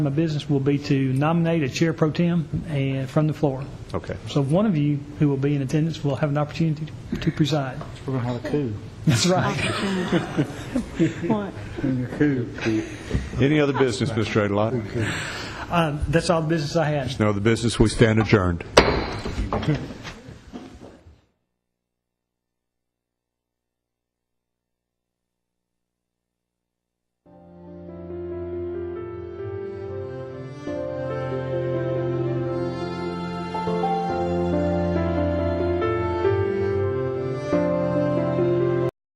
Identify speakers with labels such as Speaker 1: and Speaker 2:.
Speaker 1: of business will be to nominate a chair pro tem and from the floor.
Speaker 2: Okay.
Speaker 1: So one of you who will be in attendance will have an opportunity to- to preside.
Speaker 3: We're going to have a coup.
Speaker 1: That's right.
Speaker 2: Any other business, Mr. Adalot?
Speaker 1: Uh, That's all the business I had.
Speaker 2: No other business, we stand adjourned.